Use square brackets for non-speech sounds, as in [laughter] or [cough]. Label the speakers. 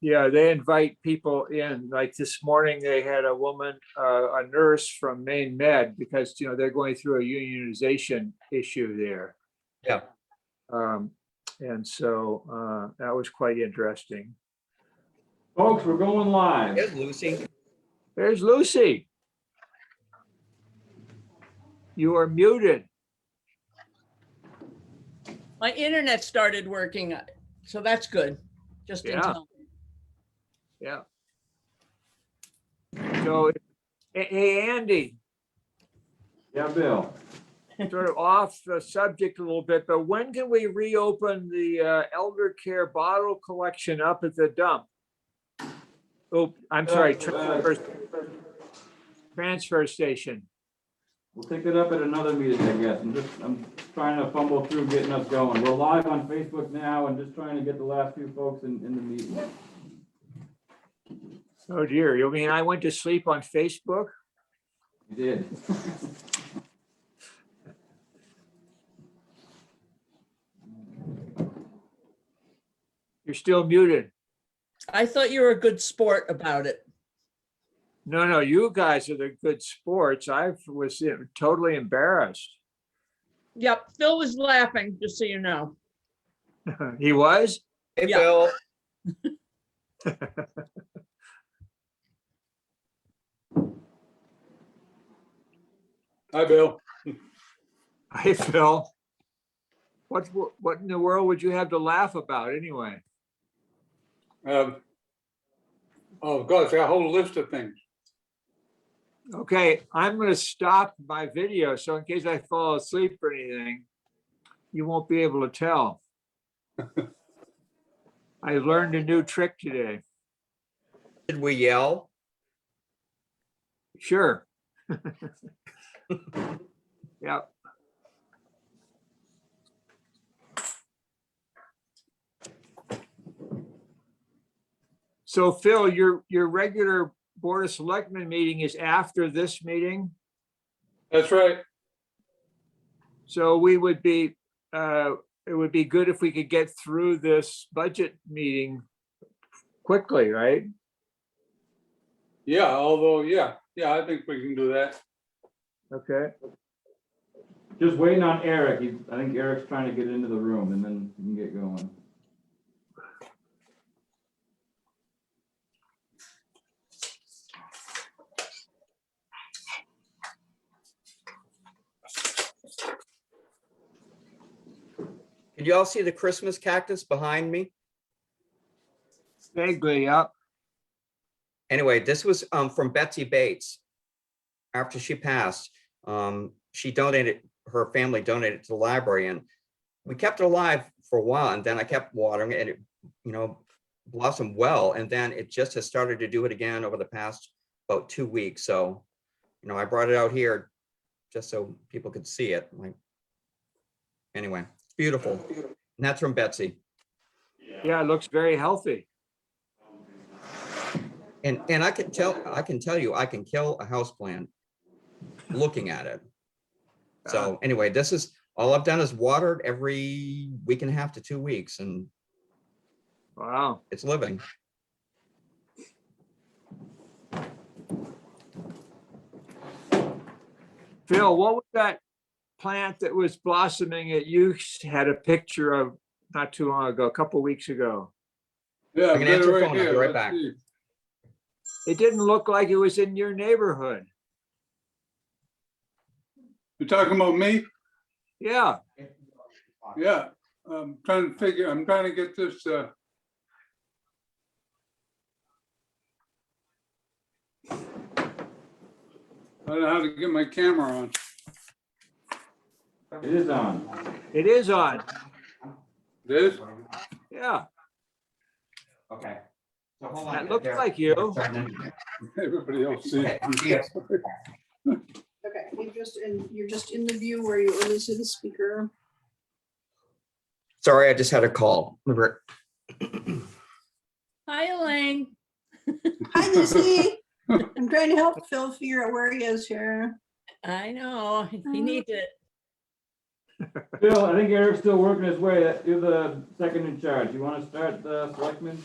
Speaker 1: Yeah, they invite people in. Like this morning, they had a woman, uh, a nurse from Maine Med, because, you know, they're going through a unionization issue there.
Speaker 2: Yeah.
Speaker 1: Um, and so, uh, that was quite interesting.
Speaker 3: Folks, we're going live.
Speaker 2: There's Lucy.
Speaker 1: There's Lucy. You are muted.
Speaker 4: My internet started working, so that's good. Just in
Speaker 1: Yeah.
Speaker 4: time.
Speaker 1: Yeah. So, hey, hey, Andy,
Speaker 3: Yeah, Bill.
Speaker 1: sort of off the subject a little bit, but when can we reopen the uh, elder care bottle collection up at the dump? Oh, I'm sorry, transfer, transfer station.
Speaker 3: We'll pick it up at another meeting, I guess. I'm just, I'm trying to fumble through getting us going. We're live on Facebook now and just trying to get the last few folks in, in the meeting.
Speaker 1: Oh dear, you mean I went to sleep on Facebook?
Speaker 3: You did.
Speaker 1: You're still muted.
Speaker 4: I thought you were a good sport about it.
Speaker 1: No, no, you guys are the good sports. I was totally embarrassed. [laughs]
Speaker 4: Yep, Phil was laughing, just so you know.
Speaker 1: He was?
Speaker 2: Hey,
Speaker 4: Yeah.
Speaker 2: Bill.
Speaker 5: Hi, Bill.
Speaker 1: Hey, Phil. What, what in the world would you have to laugh about anyway?
Speaker 5: Um, Oh, gosh, a whole list of things.
Speaker 1: Okay, I'm gonna stop my video, so in case I fall asleep or anything, you won't be able to tell. I learned a new trick today.
Speaker 2: Did we yell?
Speaker 1: Sure. Yep. So Phil, your, your regular Board of Selectmen meeting is after this meeting?
Speaker 5: That's right.
Speaker 1: So we would be, uh, it would be good if we could get through this budget meeting quickly, right?
Speaker 5: Yeah, although, yeah, yeah, I think we can do that.
Speaker 1: Okay,
Speaker 3: Just waiting on Eric. He's, I think Eric's trying to get into the room and then we can get going.
Speaker 2: Can you all see the Christmas cactus behind me?
Speaker 1: vaguely up.
Speaker 2: Anyway, this was um, from Betsy Bates. After she passed, um, she donated, her family donated to the library and we kept it alive for a while and then I kept watering it and it, you know, blossomed well. And then it just has started to do it again over the past about two weeks. So, you know, I brought it out here just so people could see it. Like, anyway, it's beautiful. And that's from Betsy.
Speaker 1: Yeah, it looks very healthy.
Speaker 2: And, and I can tell, I can tell you, I can kill a house plant looking at it. So anyway, this is, all I've done is watered every week and a half to two weeks and
Speaker 1: Wow.
Speaker 2: it's living.
Speaker 1: Phil, what was that plant that was blossoming that you had a picture of not too long ago, a couple weeks ago?
Speaker 5: Yeah.
Speaker 2: I can
Speaker 5: better
Speaker 2: answer
Speaker 5: right
Speaker 2: phone, I'll be
Speaker 5: here.
Speaker 2: right
Speaker 5: Let's
Speaker 2: back.
Speaker 5: see.
Speaker 1: It didn't look like it was in your neighborhood.
Speaker 5: You talking about me?
Speaker 1: Yeah,
Speaker 5: Yeah, I'm trying to figure, I'm trying to get this, uh, I don't know how to get my camera on.
Speaker 3: It is on.
Speaker 1: it is on.
Speaker 5: This, [laughs]
Speaker 1: Yeah,
Speaker 2: Okay.
Speaker 1: that looks like you.
Speaker 5: everybody else sees. it.
Speaker 6: Okay, you just in, you're just in the view where you release the speaker.
Speaker 2: Sorry, I just had a call. Remember,
Speaker 4: Hi, Elaine.
Speaker 6: Hi, Lucy. I'm trying to help Phil figure out where he is here.
Speaker 4: I know, he needs it.
Speaker 3: Bill, I think Eric's still working his way. You're the second in charge. You want to start the selectmen?